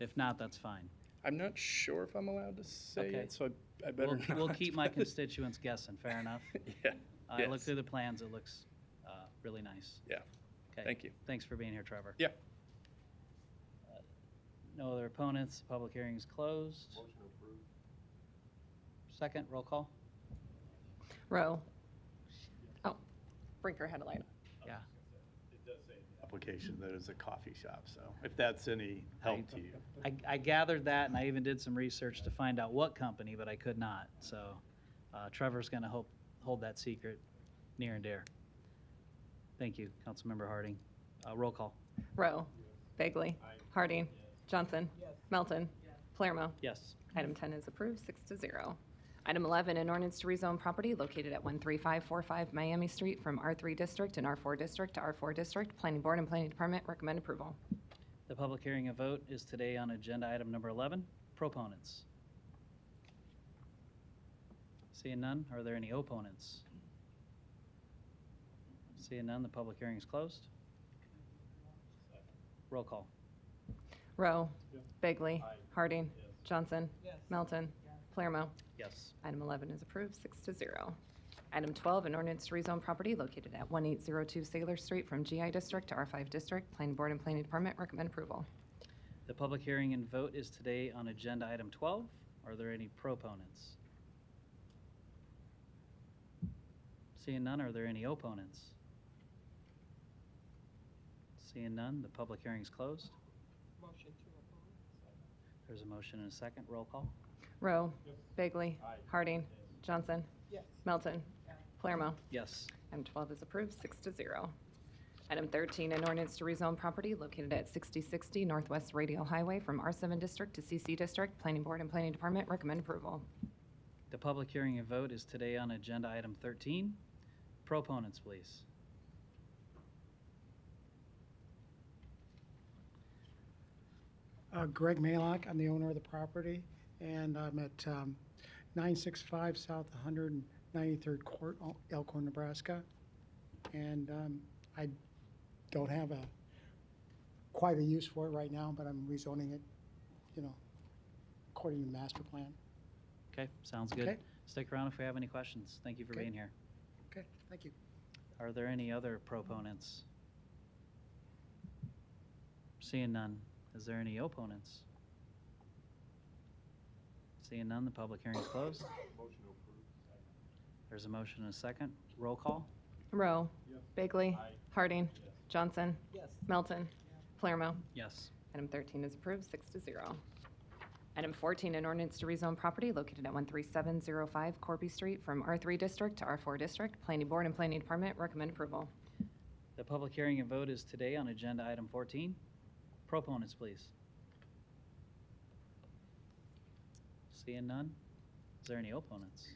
If not, that's fine. I'm not sure if I'm allowed to say Okay. it, so I, I better We'll, not. we'll keep my but- constituents guessing, fair enough. Yeah. I looked yes. through the plans, it looks uh, really nice. Yeah. Okay. Thank you. Thanks for being here, Trevor. Uh, Yeah. No other opponents, public hearing is closed. Second, roll call? Row. Oh, Brinker had a light. Yeah. application that is a coffee shop, so if that's any help to you. I, I gathered that and I even did some research to find out what company, but I could not. So uh, Trevor's going to hope, hold that secret near and dear. Thank you, Councilmember Harding. Uh, Roll call. Row. Bagley. Harding. Johnson. Melton. Palermo. Yes. Item 10 is approved, six to zero. Item 11, an ordinance to rezone property located at 13545 Miami Street from R3 District and R4 District to R4 District. Planning Board and Planning Department recommend approval. The public hearing and vote is today on agenda item number 11. Proponents. Seeing none, are there any opponents? Seeing none, the public hearing is closed. Roll call. Row. Bagley. Harding. Johnson. Melton. Palermo. Yes. Item 11 is approved, six to zero. Item 12, an ordinance to rezone property located at 1802 Sailor Street from GI District to R5 District. Planning Board and Planning Department recommend approval. The public hearing and vote is today on agenda item 12. Are there any proponents? Seeing none, are there any opponents? Seeing none, the public hearing is closed. There's a motion and a second. Roll call. Rowe. Bagley. Harding. Johnson. Melton. Palermo. Yes. Item 12 is approved, six to zero. Item 13, an ordinance to rezone property located at 6060 Northwest Radio Highway from R7 District to CC District. Planning Board and Planning Department recommend approval. The public hearing and vote is today on agenda item 13. Proponents, please. Uh, Greg Malock, I'm the owner of the property, and I'm at um, 965 South 193rd Court, El- Elkhorn, Nebraska. And um, I don't have a, quite a use for it right now, but I'm rezoning it, you know, according to master plan. Okay, sounds good. Okay. Stick around if we have any questions. Thank you for Okay. being here. Okay, thank you. Are there any other proponents? Seeing none, is there any opponents? Seeing none, the public hearing is closed. There's a motion and a second. Roll call? Rowe. Bagley. Harding. Johnson. Melton. Palermo. Yes. Item 13 is approved, six to zero. Item 14, an ordinance to rezone property located at 13705 Corby Street from R3 District to R4 District. Planning Board and Planning Department recommend approval. The public hearing and vote is today on agenda item 14. Proponents, please. Seeing none, is there any opponents?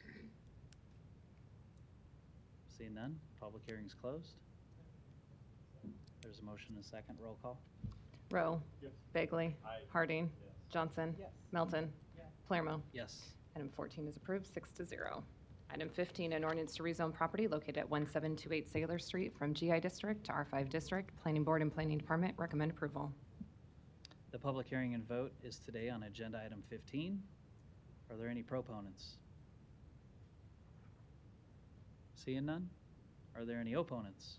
Seeing none, public hearing is closed. There's a motion and a second. Roll call? Rowe. Bagley. Harding. Johnson. Melton. Palermo. Yes. Item 14 is approved, six to zero. Item 15, an ordinance to rezone property located at 1728 Sailor Street from GI District to R5 District. Planning Board and Planning Department recommend approval. The public hearing and vote is today on agenda item 15. Are there any proponents? Seeing none? Are there any opponents?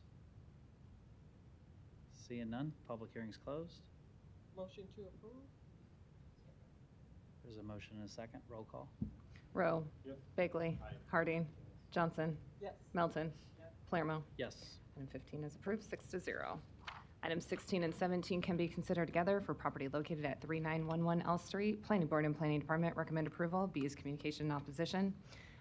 Seeing none, public hearing's closed. Motion to approve? There's a motion and a second. Roll call? Rowe. Bagley. Harding. Johnson. Yes. Melton. Palermo. Yes. Item 15 is approved, six to zero. Item 16 and 17 can be considered together for property located at 3911 L Street. Planning Board and Planning Department recommend approval. B is communication and opposition.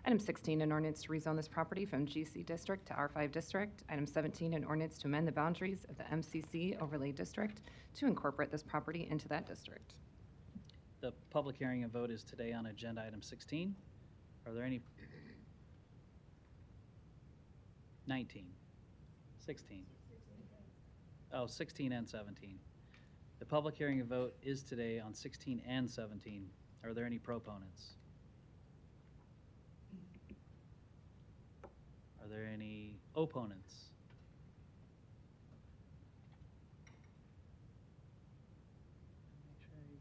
Item 16, an ordinance to rezone this property from GC District to R5 District. Item 17, an ordinance to amend the boundaries of the MCC overlay district to incorporate this property into that district. The public hearing and vote is today on agenda item 16. Are there any? 19, 16. Oh, 16 and 17. The public hearing and vote is today on 16 and 17. Are there any proponents? Are there any opponents?